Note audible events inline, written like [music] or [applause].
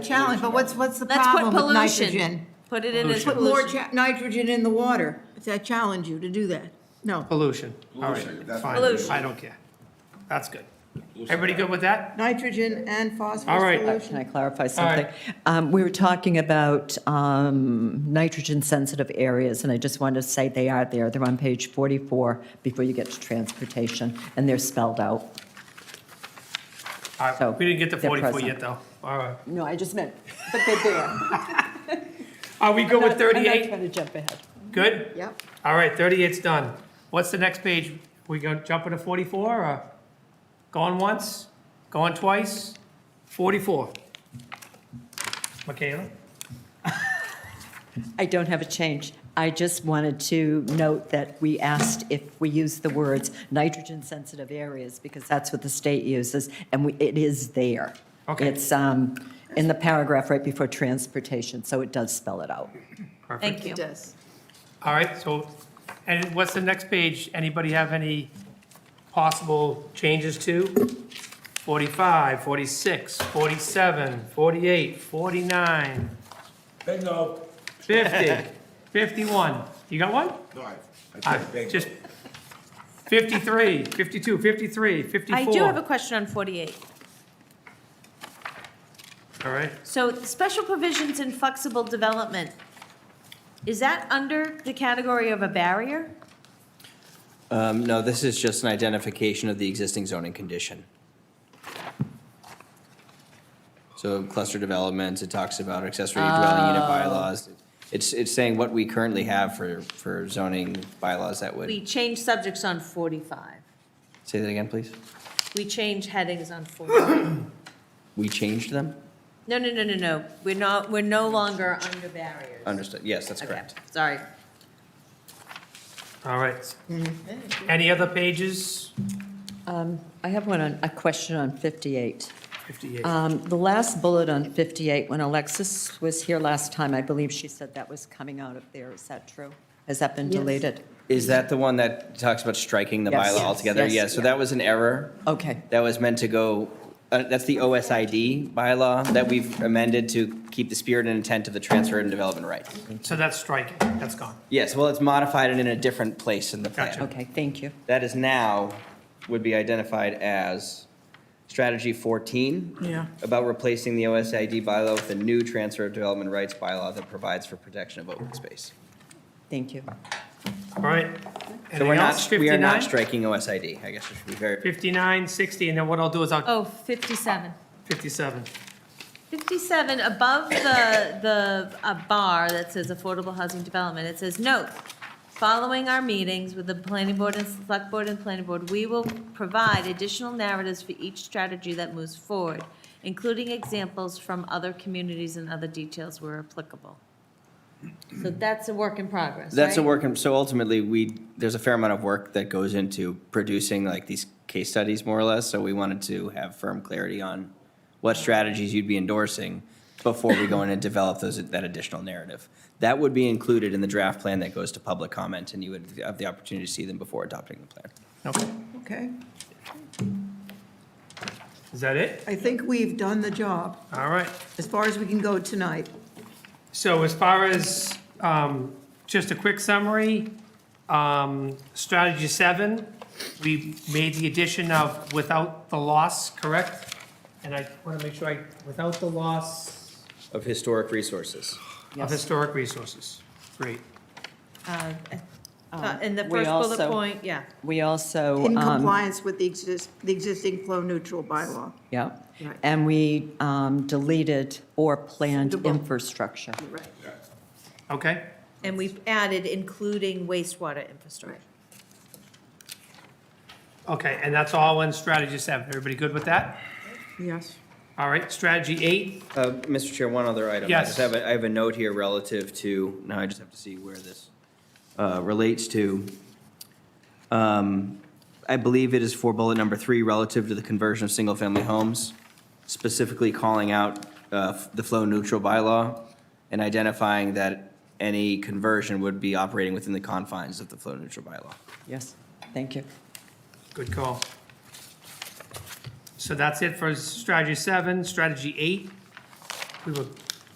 Challenge, but what's, what's the Let's put problem with pollution. nitrogen? Put it in as Put more pollution. cha- nitrogen in the water. I challenge you to do that. No, Pollution, all right, Pollution, that's- fine, Pollution. I don't care. That's good. Everybody good with that? nitrogen and All phosphorus right. Uh, pollution. Can I clarify right. something? Um, We were talking about um, nitrogen-sensitive areas, and I just wanted to say they are there. They're on page 44 before you get to transportation, and they're spelled out. All So, right, we didn't get to they're 44 present. yet, though, all right. No, I just meant, but they're there. [laughs] Are we good with I'm not 38? trying to jump ahead. Good? Yep. All right, 38's done. What's the next page? We go jumping to 44, or going once, going twice? 44. Michaela? I don't have a change. I just wanted to note that we asked if we use the words nitrogen-sensitive areas, because that's what the state uses, and we- it is there. Okay. It's um, in the paragraph right before transportation, so it does spell it out. Perfect. Thank you. It does. All right, so, and what's the next page? Anybody have any possible changes to? 45, 46, 47, 48, 49, Bingo. [laughs] 50, 51. You got one? No, I, I All said right, bingo. Ah, Just 53, 52, 53, I do have a 54. question on 48. All right, So special provisions in flexible development, is that under the category of a barrier? Um, No, this is just an identification of the existing zoning condition. So cluster developments, it talks about accessory dwelling Oh. unit bylaws. It's, it's saying what we currently have for, for zoning bylaws that We would, change subjects on 45. say that again, please? We change headings on 45. We changed them? No, no, no, no, no. We're not, we're no longer under barriers. Understood, yes, that's Okay, correct. sorry. all right. Mm-hmm. Any other pages? Um, I have one on, a question on 58. 58. Um, The last bullet on 58, when Alexis was here last time, I believe she said that was coming out of there. Is that true? Has that been deleted? Is that the one that talks about striking the Yes. bylaw Yes. altogether? Yes. Yeah, so that was an error. Okay, That was meant to go, uh, that's the OSID bylaw that we've amended to keep the spirit and intent of the transfer and development rights. So that's striking, that's gone. Yes, well, it's modified and in a different place in the Gotcha. plan. okay, thank you. That is now, would be identified as strategy 14. Yeah. About replacing the OSID bylaw with a new transfer of development rights bylaw that provides for protection of open space. Thank you. All right. So we're Anything not, else? we are 59? not striking OSID, I guess it should be very, 59, 60, and then what I'll do is I'll, Oh, 57. 57. 57, above the, the, a bar that says affordable housing development, it says, note, following our meetings with the planning board and select board and planning board, we will provide additional narratives for each strategy that moves forward, including examples from other communities and other details where applicable. So that's a work in progress, that's a right? work, in- so ultimately, we, there's a fair amount of work that goes into producing like these case studies, more or less, so we wanted to have firm clarity on what strategies you'd be endorsing before we go in and develop those, that additional narrative. That would be included in the draft plan that goes to public comment, and you would have the opportunity to see them before adopting the plan. Okay, Okay. is that it? I think we've done the job All right. as far as we can go tonight. So as far as, um, just a quick summary, um, strategy seven, we made the addition of without the loss, correct? And I want to make sure I, without the loss Of historic resources. of historic resources. Great. Uh, uh, In the We first bullet also- point, yeah. We also. In um, compliance with the exist, the existing flow neutral bylaw. Yeah, Right. and we um, deleted or planned Suitable. infrastructure. Right. Okay, And we've added including wastewater infrastructure. okay, and that's all in strategy seven. Everybody good with that? Yes. All right, strategy eight, Uh, Mr. Chair, one other item. I Yes. just have, a- I have a note here relative to, now I just have to see where this uh, relates to. Um, I believe it is for bullet number three, relative to the conversion of single-family homes, specifically calling out uh, the flow-neutral bylaw and identifying that any conversion would be operating within the confines of the flow-neutral bylaw. Yes, thank you. good call. So that's it for strategy seven, strategy eight. we will